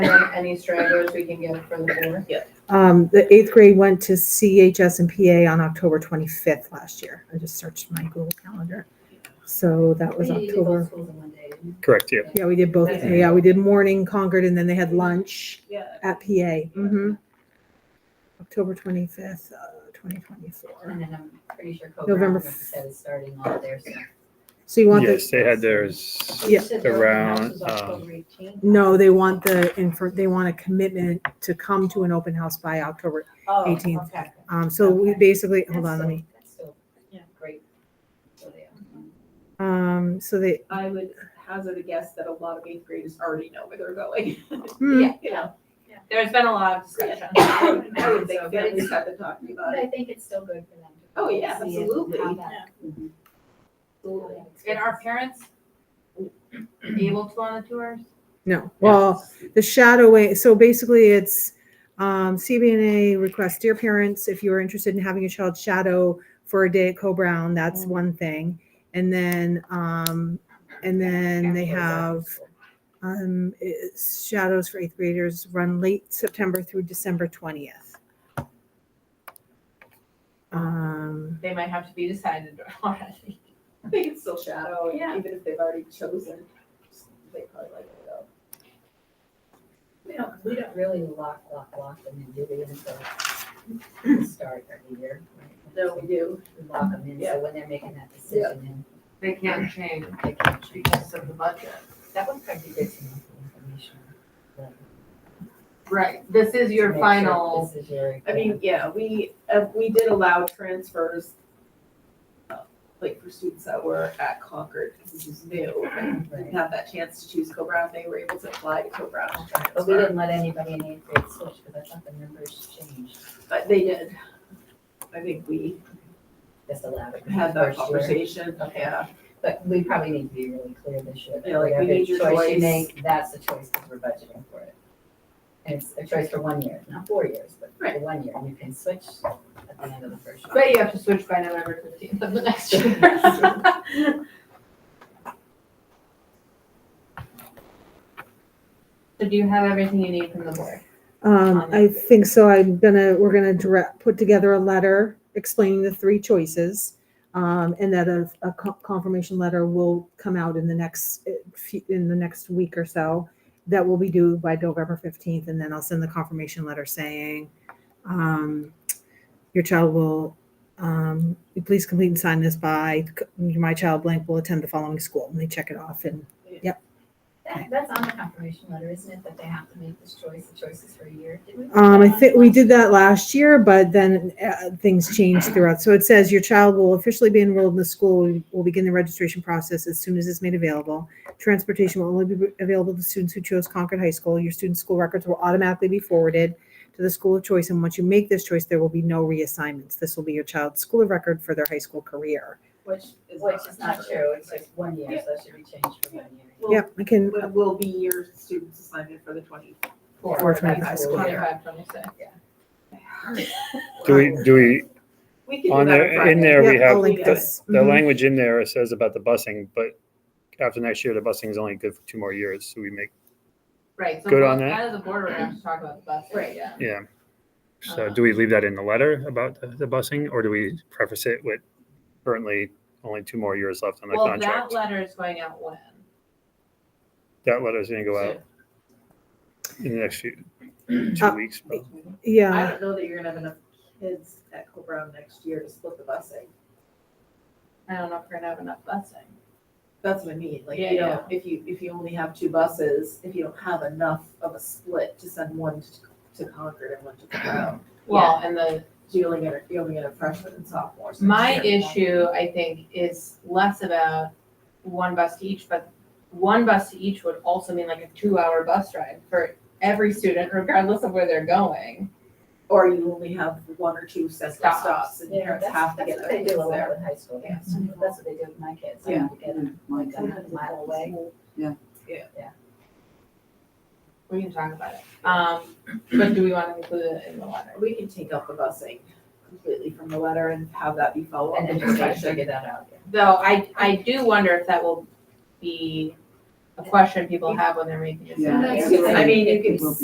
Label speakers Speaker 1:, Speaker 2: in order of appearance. Speaker 1: any stragglers we can get for the board.
Speaker 2: Um, the eighth grade went to CHS and PA on October twenty-fifth last year. I just searched my Google calendar. So that was October.
Speaker 3: Correct, yeah.
Speaker 2: Yeah, we did both.
Speaker 4: Okay.
Speaker 2: Yeah, we did morning Concord and then they had lunch
Speaker 4: Yeah.
Speaker 2: at PA. Mm-hmm. October twenty-fifth, uh, twenty twenty-four.
Speaker 5: And then I'm pretty sure
Speaker 2: November
Speaker 5: Co-Brown
Speaker 2: f-
Speaker 5: said starting all their stuff.
Speaker 2: So you want the,
Speaker 3: Yes, they had theirs.
Speaker 2: Yeah.
Speaker 3: Around, um,
Speaker 2: no, they want the, infor- they want a commitment to come to an open house by October.
Speaker 5: Oh,
Speaker 2: 18th. Um, so we
Speaker 5: Okay.
Speaker 2: basically, hold on, let me,
Speaker 5: That's still
Speaker 4: Yeah.
Speaker 5: great. So they are.
Speaker 2: um, so they,
Speaker 4: I would hazard a guess that a lot of eighth graders already know where they're going.
Speaker 2: hmm,
Speaker 4: You know,
Speaker 5: There's been a lot of discussion.
Speaker 4: I would I would think
Speaker 5: So, but
Speaker 4: families
Speaker 5: it's-
Speaker 4: have been talking
Speaker 5: but
Speaker 4: about it.
Speaker 5: I think it's still good for them. to
Speaker 4: Oh, yeah,
Speaker 5: see it Mm-hmm. and
Speaker 4: absolutely.
Speaker 5: have that-
Speaker 1: Absolutely.
Speaker 5: And our parents
Speaker 1: able to on the tours?
Speaker 2: no, well, The shadowing, so basically it's um, CBNA requests, dear parents, if you are interested in having your child shadow for a day at Co-Brown, that's one thing. And then, um, and then they have um, it's shadows for eighth graders run late September through December 20th. Um,
Speaker 1: They might have to be decided already.
Speaker 4: They can still shadow, and
Speaker 1: Yeah.
Speaker 4: even if they've already chosen, they probably like it though.
Speaker 5: We don't, we don't really lock, lock, lock them in, do we, until the start of the year? right?
Speaker 4: No, we do.
Speaker 5: We Lock them in,
Speaker 4: Yeah.
Speaker 5: so when they're making that decision,
Speaker 1: They can't change
Speaker 5: then they can choose.
Speaker 1: because of the budget.
Speaker 5: That would probably be good to know for information. like,
Speaker 1: Right, this is
Speaker 5: to
Speaker 1: your
Speaker 5: make sure
Speaker 1: final,
Speaker 5: This is your.
Speaker 4: I mean, yeah, we, uh, we did allow transfers, uh, like for students that were at Concord, because this is new, and didn't
Speaker 5: Right.
Speaker 4: have that chance to choose Co-Brown, they were able to apply to Co-Brown. and
Speaker 5: But we
Speaker 4: transfer.
Speaker 5: didn't let anybody in eighth grade switch, because I thought the numbers changed,
Speaker 4: But they did. I think we
Speaker 5: just allowed it.
Speaker 4: had
Speaker 5: for
Speaker 4: that
Speaker 5: first year.
Speaker 4: conversation, yeah.
Speaker 5: But we probably need to be really clear this year. that
Speaker 4: Yeah, like, we
Speaker 5: whatever
Speaker 4: need your
Speaker 5: you
Speaker 4: choice.
Speaker 5: make, That's the choice because we're budgeting for it. And it's a choice for one year, not four years, but for
Speaker 4: Right.
Speaker 5: one year. And you can switch at the end of the first year.
Speaker 1: but you have to switch by November fifteenth of the next year. So do you have everything you need from the board?
Speaker 2: um, I think so. I'm gonna, we're gonna direct, put together a letter explaining the three choices. Um, and that a, a co- confirmation letter will come out in the next, eh, few- in the next week or so. That will be due by November fifteenth, and then I'll send the confirmation letter saying, um, your child will, um, please complete and sign this by, my child blank will attend the following school, and they check it off and
Speaker 5: That- That's on the confirmation letter, isn't it, that they have to make this choice, the choice is for a year? Did we put
Speaker 2: Um, I
Speaker 5: that on
Speaker 2: think we
Speaker 5: last
Speaker 2: did that last year, but then uh, things changed throughout. So it says your child will officially be enrolled in the school. We will begin the registration process as soon as it's made available. Transportation will only be available to students who chose Concord High School. Your student school records will automatically be forwarded to the school of choice. And once you make this choice, there will be no reassignments. This will be your child's school of record for their high school career.
Speaker 4: Which is.
Speaker 5: Which is not true, it's like one year,
Speaker 4: Yeah.
Speaker 5: so it should be changed for one year.
Speaker 4: Well,
Speaker 2: Yep, I can,
Speaker 4: Will, will be your student's assignment for the twenty.
Speaker 2: Four twenty-five school year.
Speaker 1: Twenty-five, twenty-six.
Speaker 3: Do we, do we,
Speaker 4: We can
Speaker 3: On
Speaker 4: do that
Speaker 3: there-
Speaker 4: on Friday.
Speaker 3: in there we
Speaker 2: yeah,
Speaker 3: have
Speaker 2: I'll link
Speaker 4: the-
Speaker 2: this.
Speaker 3: the
Speaker 2: Mhm.
Speaker 3: language in there says about the busing, but after next year, the busing is only good for two more years. So we make,
Speaker 1: Right. so
Speaker 3: Good on
Speaker 1: both-
Speaker 3: that.
Speaker 1: As a board, we're gonna have to talk about the bus.
Speaker 4: Right.
Speaker 1: Yeah.
Speaker 3: yeah. So do we leave that in the letter about the, the busing or do we preface it with currently only two more years left on the
Speaker 1: Well, that
Speaker 3: contract?
Speaker 1: letter is going out when?
Speaker 3: That letter's gonna go out in the next few, two
Speaker 2: Uh,
Speaker 3: weeks. probably.
Speaker 4: I
Speaker 2: Yeah,
Speaker 4: don't know that you're gonna have enough kids at Co Brown next year to split the busing.
Speaker 1: I don't know if we're gonna have enough busing.
Speaker 4: That's what I mean, like,
Speaker 1: Yeah,
Speaker 4: you know, if you, if you only have two buses, if you don't have enough of a split to send one to, to Concord and one to Co Brown,
Speaker 1: Well, and the,
Speaker 4: so you only get, you only get a freshman and sophomore. so
Speaker 1: my
Speaker 4: it's-
Speaker 1: issue, I think, is less about one bus to each, but one bus to each would also mean like a two-hour bus ride for every student, regardless of where they're going.
Speaker 4: Or you only have one or two central
Speaker 1: Stops.
Speaker 4: stops and parents
Speaker 5: that's-
Speaker 4: have to
Speaker 5: that's
Speaker 4: get
Speaker 5: what
Speaker 4: their
Speaker 5: They
Speaker 4: kids
Speaker 5: do a lot
Speaker 4: there.
Speaker 5: with high school,
Speaker 4: Yeah.
Speaker 5: kids. that's what they do with my kids, I
Speaker 4: Yeah.
Speaker 5: have to get them like a mile away.
Speaker 1: We can talk about it. Um, but do we want to include it in the letter?
Speaker 4: We can take up the busing completely from the letter and have that be followed up
Speaker 5: And
Speaker 4: in
Speaker 5: then just try to
Speaker 4: discussion.
Speaker 5: figure that out. yeah.
Speaker 1: Though I, I do wonder if that will be a question people have when they're making decisions.
Speaker 4: I mean, you can